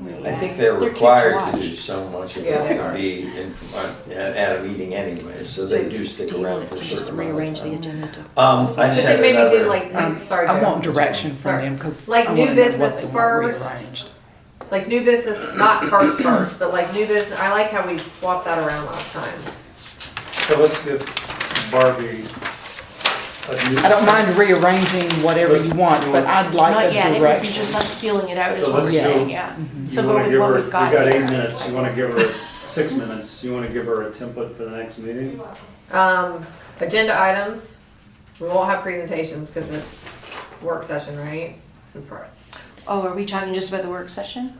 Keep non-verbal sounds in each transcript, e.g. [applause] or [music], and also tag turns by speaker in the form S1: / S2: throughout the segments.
S1: really.
S2: I think they're
S1: They're
S2: required
S1: kids
S2: to
S1: watch.
S2: do so much of
S3: Yeah,
S2: it
S3: they
S2: to
S3: are.
S2: be in, at, at a meeting anyway, so
S4: So
S2: they do stick
S4: you
S2: around
S4: want
S2: for a
S4: to just
S2: certain amount of
S4: rearrange the
S2: time.
S4: agenda to-
S2: Um, I
S3: But
S2: said
S3: then maybe do
S2: another-
S3: like, I'm sorry,
S5: I want
S3: Joe.
S5: direction from
S3: Sorry.
S5: them because.
S3: Like new business first. like new business, not first first, but like new business, I like how we swapped that around last time.
S6: So let's give Barbie a new.
S5: I don't mind rearranging whatever you want, but I'd like
S1: Not
S5: a
S1: yet, it would be just
S5: direction.
S1: us feeling it out, is
S6: So
S1: what we're
S6: let's
S1: saying,
S6: do-
S1: yeah.
S6: You
S1: So go
S6: wanna
S1: with
S6: give
S1: what
S6: her-
S1: we've got
S6: We got
S1: here.
S6: eight minutes, you wanna give her six minutes, you wanna give her a template for the next meeting?
S3: Um, agenda items, we won't have presentations because it's work session, right?
S1: Oh, are we talking just about the work session?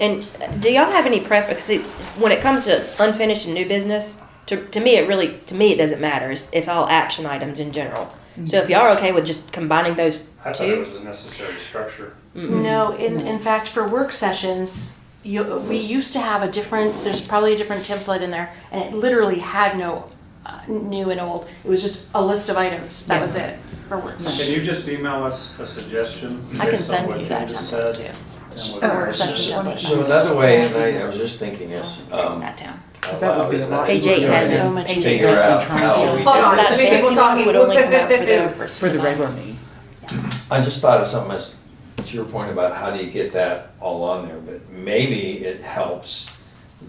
S4: And uh, do y'all have any preference? See, when it comes to unfinished and new business, to, to me it really to me it doesn't matter. It's, it's all action items in general. So if y'all are okay with just combining those
S6: I thought it
S4: two,
S6: was a necessary structure.
S4: Mm-hmm.
S1: No, in, in fact, for work sessions, you, we used to have a different, there's probably a different template in there, and it literally had no uh, new and old, it was just a list of items, that was it, for work
S6: Can
S1: session.
S6: you just email us a suggestion
S1: I can
S6: based on
S1: send
S6: what
S1: you
S6: you
S1: that
S6: just
S1: template
S6: said?
S1: too.
S6: and
S5: Oh,
S6: what
S1: The
S2: Oh,
S6: the
S1: work
S6: rest is?
S1: session template.
S2: So another way, and I, I was just thinking this,
S1: Write
S2: um,
S1: That down.
S2: out
S5: That would
S2: loud
S5: be a
S2: is
S5: lot
S2: that
S4: AJ
S2: you
S4: has
S2: can
S1: so much
S2: Figure
S5: information.
S2: out how Oh, we
S3: Hold on,
S2: did
S3: let
S2: this.
S3: me get people
S1: That fancy
S3: talking.
S1: one would only come out for the first
S5: For the
S1: of
S5: regular meeting.
S2: I just thought of something as, to your point about how do you get that all on there, but maybe it helps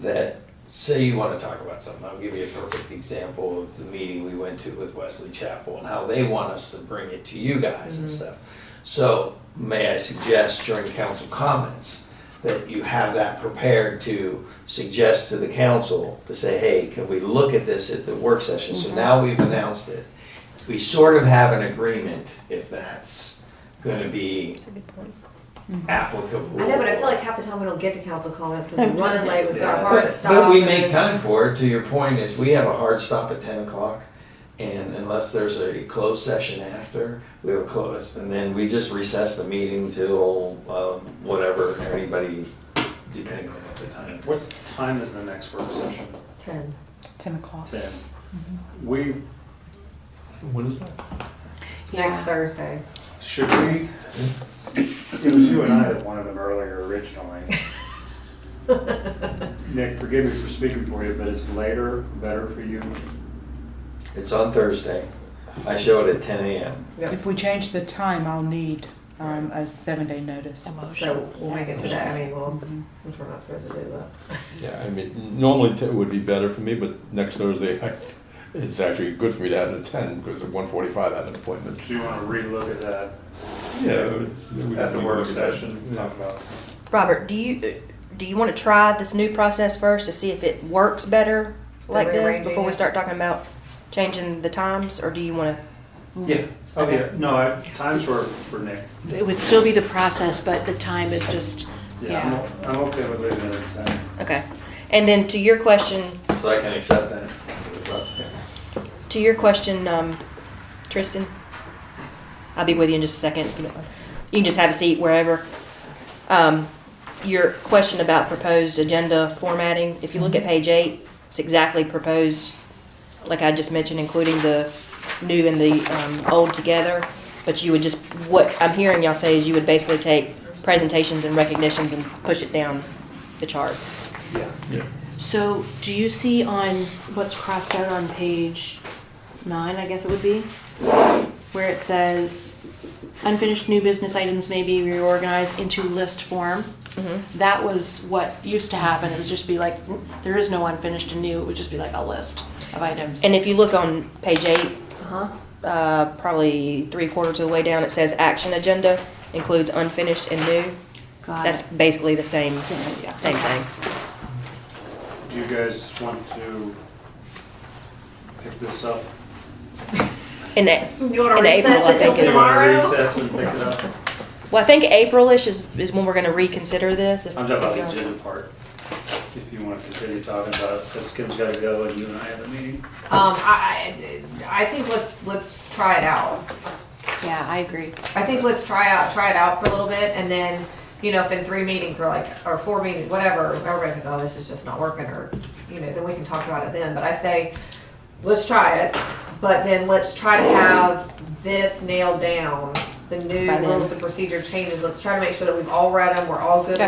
S2: that, say you wanna talk about something, I'll give you a perfect example of the meeting we went to with Wesley Chapel and how they want us to bring it to you guys and stuff. So, may I suggest during council comments, that you have that prepared to suggest to the council, to say, hey, can we look at this at the work session? So now we've announced it. We sort of have an agreement if that's gonna be applicable.
S3: I know, but I feel like half the time we don't get to council comments [laughs] because we're running late, we've got a hard
S2: But,
S3: stop.
S2: but we make
S3: and-
S2: time for it, to your point is, we have a hard stop at ten o'clock, and unless there's a closed session after, we have a close, and then we just recess the meeting till, um, whatever, anybody, depending on what the time
S6: What
S2: is.
S6: time is the next work session?
S3: Ten.
S5: Ten o'clock.
S6: Ten.
S1: Mm-hmm.
S6: We,
S2: What is that?
S3: Next
S1: Yeah.
S3: Thursday. [laughs]
S6: should we, it was you and I that wanted them earlier originally. Nick, forgive me for speaking for you, but is later better for you?
S2: It's on Thursday, I show it at ten AM.
S5: If we change the time, I'll need, um, a seven day notice. Mm-hmm.
S3: So we'll make it today, I mean, we'll, which we're not supposed to do, but.
S7: Yeah, I mean, normally it would be better for me, but next Thursday, I- it's actually good for me to have it at ten, because at one forty-five I have an appointment.
S6: Do you want to relook at that?
S7: Yeah,
S6: At the work session, talk about.
S4: Robert, do you do you want to try this new process first to see if it works better like this
S3: Rearranging
S4: before we
S3: it.
S4: start talking about changing the times, or do you want to?
S6: Yeah, oh yeah, no, I- times were for Nick.
S1: It would still be the process, but the time is just,
S6: I'm o- I'm okay with leaving it at ten.
S4: Okay, and then to your question,
S2: So I can accept that.
S4: to your question, um, Tristan, I'll be with you in just a second. if You, don't mind. you can just have a seat wherever. Um, your question about proposed agenda formatting, if you look at page eight, it's exactly proposed, like I just mentioned, including the new and the um, old together. But you would just, what I'm hearing y'all say is you would basically take presentations and recognitions and push it down the chart.
S1: so do you see on what's crossed out on page nine, I guess it would be? Where it says unfinished new business items may be reorganized into list form?
S4: Mm-hmm.
S1: That was what used to happen, it would just be like, there is no unfinished and new, it would just be like a list of items.
S4: And if you look on page eight,
S1: Uh-huh.
S4: uh, probably three quarters of the way down, it says action agenda includes unfinished and new.
S1: Got
S4: That's
S1: it.
S4: basically the same,
S1: Yeah.
S4: same thing.
S6: Do you guys want to pick this up?
S4: In that,
S3: You wanna
S4: In April,
S3: recess
S4: I
S3: it
S4: think
S3: till
S6: Do you want to
S3: tomorrow?
S6: recess and pick
S3: [laughs]
S6: it up?
S4: well, I think April-ish is, is when we're gonna reconsider this. if-
S6: I'm talking about
S4: if
S6: the
S4: y'all-
S6: agenda part. If you want to continue talking about it, because Kim's got to go and you and I have a meeting.
S3: Um, I, I, I think let's, let's try it out.
S1: Yeah, I agree.
S3: I think let's try out, try it out for a little bit, and then, you know, if in three meetings, we're like, or four meetings, whatever, everybody's like, oh, this is just not working, or, you know, then we can talk about it then, but I say, let's try it, but then let's try to have this nailed down, the new
S4: By then.
S3: rules and procedure changes, let's try to make sure that we've all read them, we're all good
S4: Okay.